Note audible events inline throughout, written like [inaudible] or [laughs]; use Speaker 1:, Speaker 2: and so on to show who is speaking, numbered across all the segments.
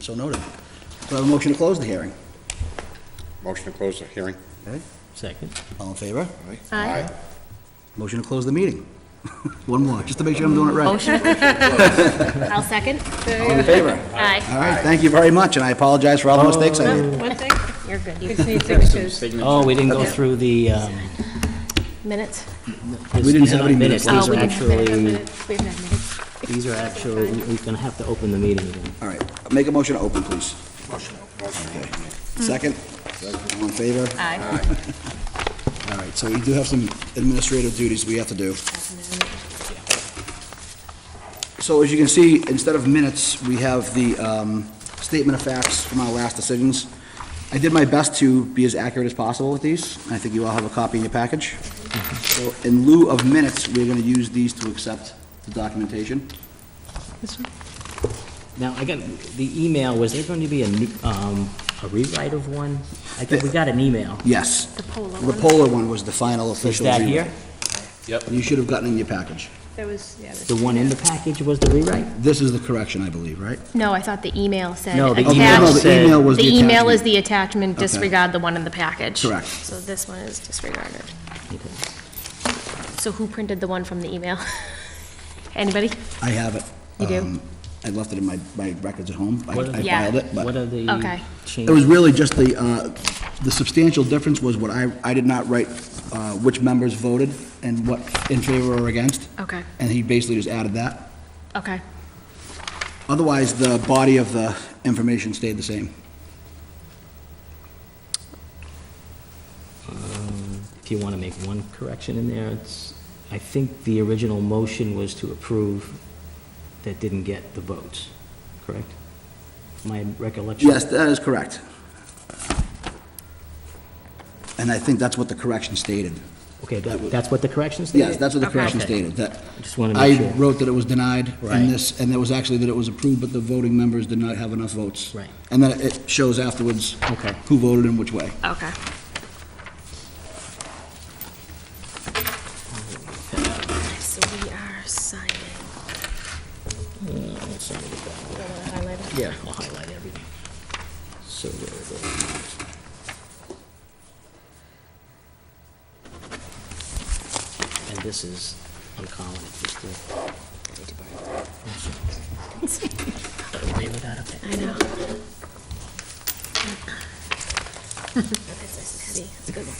Speaker 1: So noted. Do I have a motion to close the hearing?
Speaker 2: Motion to close the hearing.
Speaker 3: Second.
Speaker 1: All in favor?
Speaker 2: Aye.
Speaker 1: Motion to close the meeting. [laughs] One more, just to make sure I'm doing it right.
Speaker 4: [laughs] Motion. I'll second.
Speaker 1: All in favor?
Speaker 4: Aye.
Speaker 1: All right, thank you very much, and I apologize for all the mistakes I made.
Speaker 5: One thing,
Speaker 4: You're good.
Speaker 5: we
Speaker 4: You-
Speaker 5: just need signatures.
Speaker 3: Oh, we didn't go through the, um,
Speaker 4: Minutes?
Speaker 3: this-
Speaker 1: didn't
Speaker 3: these
Speaker 1: have
Speaker 3: are not
Speaker 1: any
Speaker 3: minutes,
Speaker 1: minutes.
Speaker 3: these
Speaker 4: Oh,
Speaker 3: are
Speaker 4: we didn't have minutes.
Speaker 3: actually,
Speaker 5: We have no minutes.
Speaker 3: these are actually, we're gonna have to open the meeting again.
Speaker 1: All right, make a motion to open, please. Second? All in favor?
Speaker 4: Aye.
Speaker 1: All right, so we do have some administrative duties we have to do. So as you can see, instead of minutes, we have the um, statement of facts from our last decisions. I did my best to be as accurate as possible with these. I think you all have a copy in your package. So in lieu of minutes, we're going to use these to accept the documentation.
Speaker 3: Now, I got, the email, was there going to be a new, um, a rewrite of one? I think we got an email.
Speaker 1: Yes.
Speaker 5: The polar
Speaker 1: The
Speaker 5: one.
Speaker 1: polar one was the final
Speaker 3: Is
Speaker 1: official.
Speaker 3: that
Speaker 1: agreement.
Speaker 3: here?
Speaker 1: You should have gotten in your package.
Speaker 5: There was, yeah. there's-
Speaker 3: The one in the package was the rewrite?
Speaker 1: This is the correction, I believe, right?
Speaker 4: No, I thought the email said
Speaker 3: No, the
Speaker 1: Oh,
Speaker 3: email
Speaker 1: no,
Speaker 4: attached.
Speaker 3: said-
Speaker 1: The email was the
Speaker 4: The email is
Speaker 1: attachment.
Speaker 4: the attachment,
Speaker 1: Okay.
Speaker 4: disregard the one in the package.
Speaker 1: Correct.
Speaker 4: So this one is disregarded.
Speaker 3: Okay.
Speaker 4: So who printed the one from the email? [laughs] Anybody?
Speaker 1: I have it.
Speaker 4: You do?
Speaker 1: Um, I left it in my, my records at home. I
Speaker 3: What are-
Speaker 1: I
Speaker 4: Yeah.
Speaker 1: filed it,
Speaker 3: What
Speaker 1: but
Speaker 3: are the
Speaker 4: Okay.
Speaker 3: changes?
Speaker 1: it was really just the, uh, the substantial difference was what I, I did not write, uh, which members voted and what in favor or against,
Speaker 4: Okay,
Speaker 1: and he basically just added that.
Speaker 4: okay.
Speaker 1: Otherwise, the body of the information stayed the same.
Speaker 3: Um, If you want to make one correction in there, it's, I think the original motion was to approve that didn't get the votes, correct? My recollection?
Speaker 1: Yes, that is correct. And I think that's what the correction stated.
Speaker 3: Okay, that- that's what the correction stated?
Speaker 1: Yes, that's what the correction
Speaker 3: Okay.
Speaker 1: stated, that.
Speaker 3: Just wanna make
Speaker 1: I
Speaker 3: sure.
Speaker 1: wrote that it was denied,
Speaker 3: Right.
Speaker 1: and this, and it was actually that it was approved, but the voting members did not have enough votes.
Speaker 3: Right.
Speaker 1: And then it shows afterwards.
Speaker 3: Okay.
Speaker 1: Who voted in which way.
Speaker 4: Okay. So we are signing.
Speaker 3: Uh,
Speaker 4: You don't wanna highlight it?
Speaker 3: Yeah, I'll highlight everything. So there it is. And this is, I'm calling it just to. Gotta leave it out of it.
Speaker 4: I know. That's nice to see. That's a good one.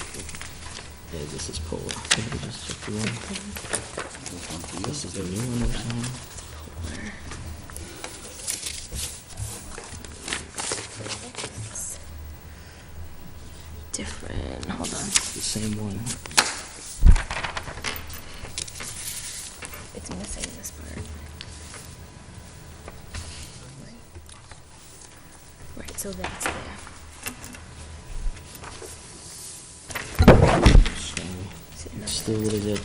Speaker 3: Yeah, this is Pola. Let me just check the one. This is the new one we're signing.
Speaker 4: Different, hold on.
Speaker 3: It's the same one.
Speaker 4: It's missing this part. Right, so that's there.
Speaker 3: So
Speaker 4: See,
Speaker 3: it's still, what is it?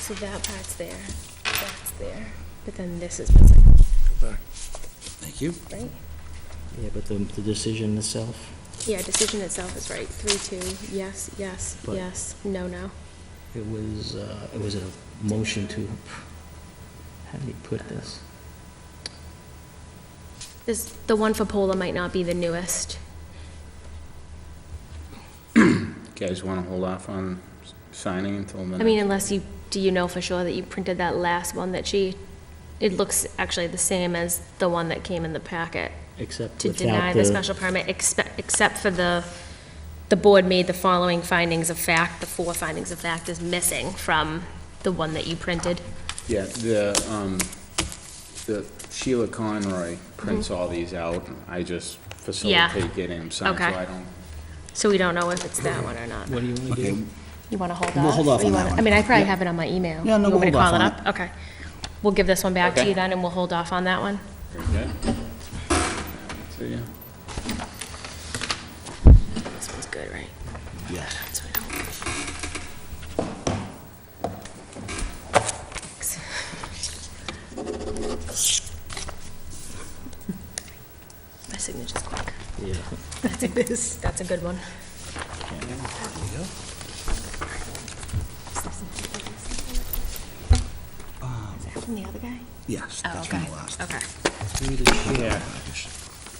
Speaker 4: So that part's there, that's there, but then this is missing,
Speaker 1: Thank you.
Speaker 4: right?
Speaker 3: Yeah, but the, the decision itself,
Speaker 4: Yeah, decision itself is right, three, two, yes, yes,
Speaker 3: But-
Speaker 4: yes, no, no.
Speaker 3: it was, uh, it was a motion to, how do you put this?
Speaker 4: This, the one for Pola might not be the newest.
Speaker 2: Guys want to hold off on signing until
Speaker 4: I mean, unless you, do you know for sure that you printed that last one that she, it looks actually the same as the one that came in the packet.
Speaker 3: Except
Speaker 4: to
Speaker 3: without the...
Speaker 4: deny the special permit, expe- except for the, the board made the following findings of fact, the four findings of fact is missing from the one that you printed.
Speaker 2: Yeah, the, um, the Sheila Conroy prints
Speaker 4: Mm-hmm.
Speaker 2: all these out, and I just facilitate getting them signed, so
Speaker 4: Okay.
Speaker 2: I don't.
Speaker 4: So we don't know if it's that one or not.
Speaker 3: What do you want to
Speaker 1: Okay,
Speaker 3: do?
Speaker 4: You want to hold off?
Speaker 1: We'll hold off
Speaker 4: Or you
Speaker 1: on that
Speaker 4: wanna-
Speaker 1: one.
Speaker 4: I mean, I probably
Speaker 1: Yeah.
Speaker 4: have it on my email.
Speaker 1: Yeah, no,
Speaker 4: You want me
Speaker 1: we'll
Speaker 4: to
Speaker 1: hold
Speaker 4: call
Speaker 1: off
Speaker 4: it up? Okay. We'll give this one back to
Speaker 2: Okay.
Speaker 4: you then, and we'll hold off on that one.
Speaker 2: Very good. See ya.
Speaker 4: This one's good, right?
Speaker 1: Yes.
Speaker 4: So we don't- My signature's quick.
Speaker 3: Yeah.
Speaker 4: That's a, that's a good one. Is that from the other guy?
Speaker 1: Yes,
Speaker 4: Oh,
Speaker 1: that's from
Speaker 4: okay,
Speaker 1: the last.
Speaker 4: okay.
Speaker 3: Oh, Through the chair.
Speaker 2: Yeah.
Speaker 1: package.